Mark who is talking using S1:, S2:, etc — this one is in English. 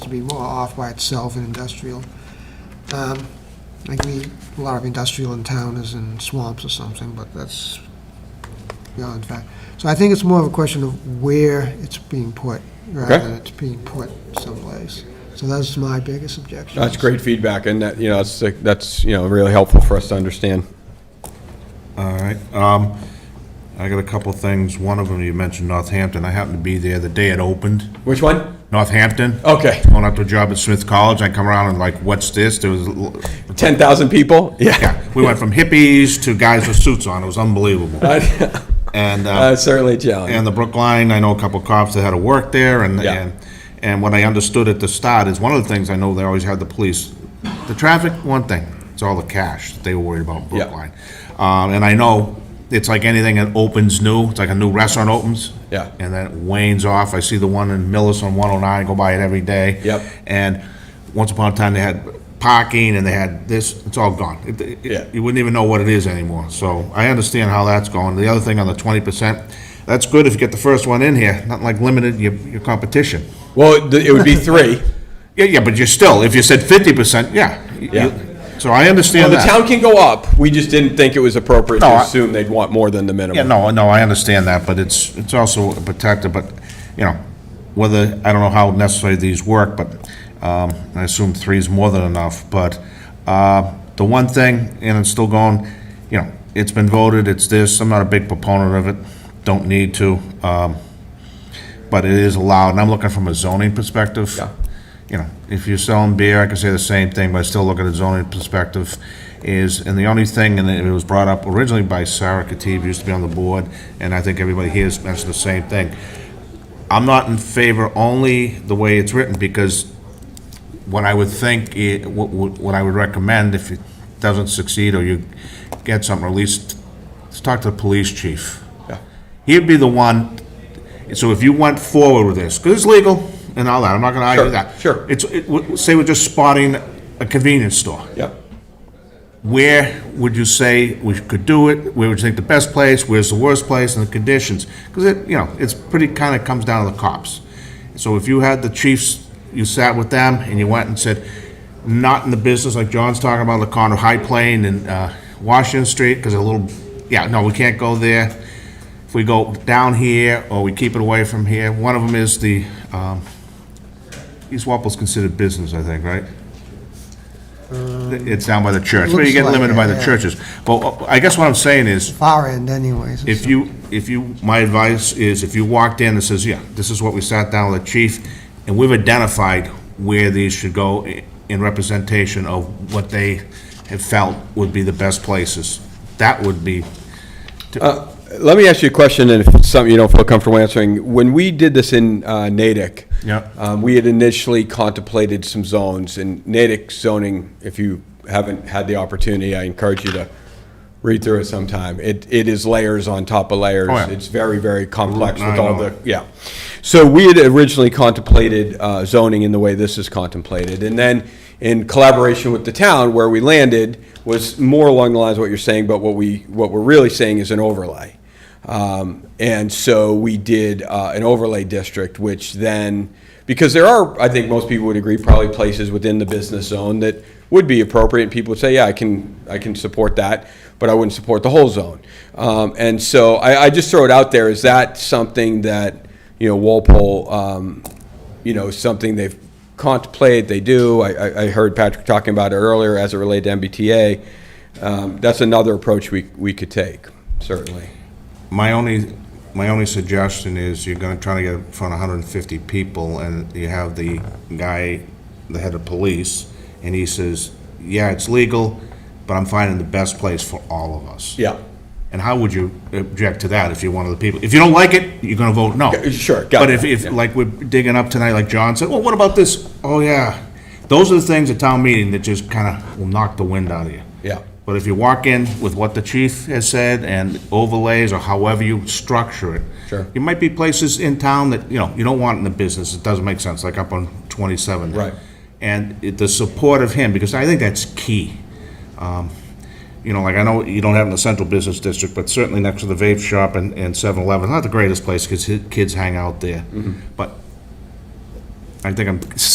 S1: be more off by itself and industrial. Um, Like we, a lot of industrial in town is in swamps or something, but that's beyond fact. So I think it's more of a question of where it's being put, rather
S2: Okay.
S1: than it's being put someplace. So that's my biggest objection.
S2: That's great feedback, and that, you know, that's, that's, you know, really helpful for us to understand.
S3: All right. Um, I got a couple things. One of them, you mentioned Northampton. I happened to be there the day it opened.
S2: Which one?
S3: Northampton.
S2: Okay.
S3: Going up to a job at Smith College. I come around and like, what's this? There was, a l-
S2: 10,000 people?
S3: yeah, we went from hippies to guys with suits on. It was unbelievable. And,
S2: Uh,
S3: uh,
S2: Certainly a challenge.
S3: and the Brookline, I know a couple cops that had to work there and,
S2: Yeah.
S3: and, and what I understood at the start is one of the things I know they always had the police. The traffic, one thing, it's all the cash that they were worried about in
S2: Yeah.
S3: Brookline. Um, and I know it's like anything that opens new, it's like a new restaurant opens.
S2: Yeah.
S3: And then it wanes off. I see the one in Millis on one oh nine, go by it every day.
S2: Yep.
S3: And once upon a time, they had parking and they had this, it's all gone. It- it-
S2: Yeah.
S3: You wouldn't even know what it is anymore. So I understand how that's going. The other thing on the twenty percent, that's good if you get the first one in here, not like limited your, your competition.
S2: Well, th- it would be three.
S3: Yeah, yeah, but you're still, if you said fifty percent, yeah. You-
S2: Yeah.
S3: So I
S2: Well,
S3: understand
S2: the
S3: that.
S2: town can go up, we just didn't think it was appropriate
S3: No,
S2: to
S3: I-
S2: assume they'd want more than the
S3: Yeah,
S2: minimum.
S3: no, no, I understand that, but it's, it's also protected, but, you know, whether, I don't know how necessarily these work, but um, I assume three is more than enough, but uh, the one thing, and it's still going, you know, it's been voted, it's this, I'm not a big proponent of it, don't need to, um, but it is allowed, and I'm looking from a zoning perspective.
S2: Yeah.
S3: You know, if you're selling beer, I could say the same thing, but I still look at a zoning perspective, is, and the only thing, and it was brought up originally by Sarah Katib, used to be on the board, and I think everybody here has mentioned the same thing. I'm not in favor only the way it's written, because what I would think, i- what would- what I would recommend, if it doesn't succeed, or you get something, or at least, let's talk to the police chief.
S2: Yeah.
S3: He'd be the one, so if you went forward with this, because it's legal and all that, I'm not gonna argue
S2: Sure,
S3: that.
S2: sure.
S3: It's, it w- say we're just spotting a convenience store.
S2: Yeah.
S3: Where would you say we could do it? Where would you think the best place? Where's the worst place and the conditions? Because it, you know, it's pretty, kind of comes down to the cops. So if you had the chiefs, you sat with them and you went and said, not in the business, like John's talking about, the corner of High Plain and uh, Washington Street, because a little, yeah, no, we can't go there. If we go down here, or we keep it away from here, one of them is the, um, East Walpole's considered business, I think, right? It's down by the church, but you get
S1: Looks like Um,
S3: limited
S1: it,
S3: by the
S1: yeah.
S3: churches. But uh, I guess what I'm saying is,
S1: Far end anyways.
S3: if you, if you, my advice is, if you walked in and says, yeah, this is what we sat down with the chief, and we've identified where these should go i- in representation of what they have felt would be the best places, that would be,
S2: Let me ask you a question, and if it's something you don't feel comfortable answering. When we did this in uh, Natick.
S3: Yep.
S2: um, We had initially contemplated some zones, and Natick zoning, if you haven't had the opportunity, I encourage you to read through it sometime. It, it is layers on top of layers.
S3: Oh, yeah.
S2: It's very, very complex
S3: Route
S2: with
S3: nine,
S2: all
S3: all
S2: the,
S3: that.
S2: yeah. So we had originally contemplated uh, zoning in the way this is contemplated. And then in collaboration with the town, where we landed was more along the lines of what you're saying, but what we, what we're really saying is an overlay. Um, And so we did uh, an overlay district, which then, because there are, I think most people would agree, probably places within the business zone that would be appropriate, and people would say, yeah, I can, I can support that, but I wouldn't support the whole zone. Um, And so I, I just throw it out there, is that something that, you know, Walpole, um, you know, something they've contemplated, they do. I, I, I heard Patrick talking about it earlier as it related to MBTA. Um, that's another approach we, we could take, certainly.
S3: my only, my only suggestion is you're gonna try to get in front of hundred and fifty people, and you have the guy, the head of police, and he says, yeah, it's legal, but I'm finding the best place for all of us.
S2: Yeah.
S3: And how would you object to that if you're one of the people? If you don't like it, you're gonna vote no.
S2: Yeah, sure, got
S3: But if,
S2: that,
S3: if,
S2: yeah.
S3: like we're digging up tonight, like John said, well, what about this? Oh, yeah. Those are the things at town meeting that just kinda will knock the wind out of you.
S2: Yeah.
S3: But if you walk in with what the chief has said and overlays or however you structure it.
S2: Sure.
S3: There might be places in town that, you know, you don't want in the business, it doesn't make sense, like up on twenty-seven.
S2: Right.
S3: And it- the support of him, because I think that's key Um, you know, like I know you don't have it in the central business district, but certainly next to the vape shop and, and 7-Eleven,
S2: Mm-hmm.
S3: not the greatest place because kids hang out there. But I think I'm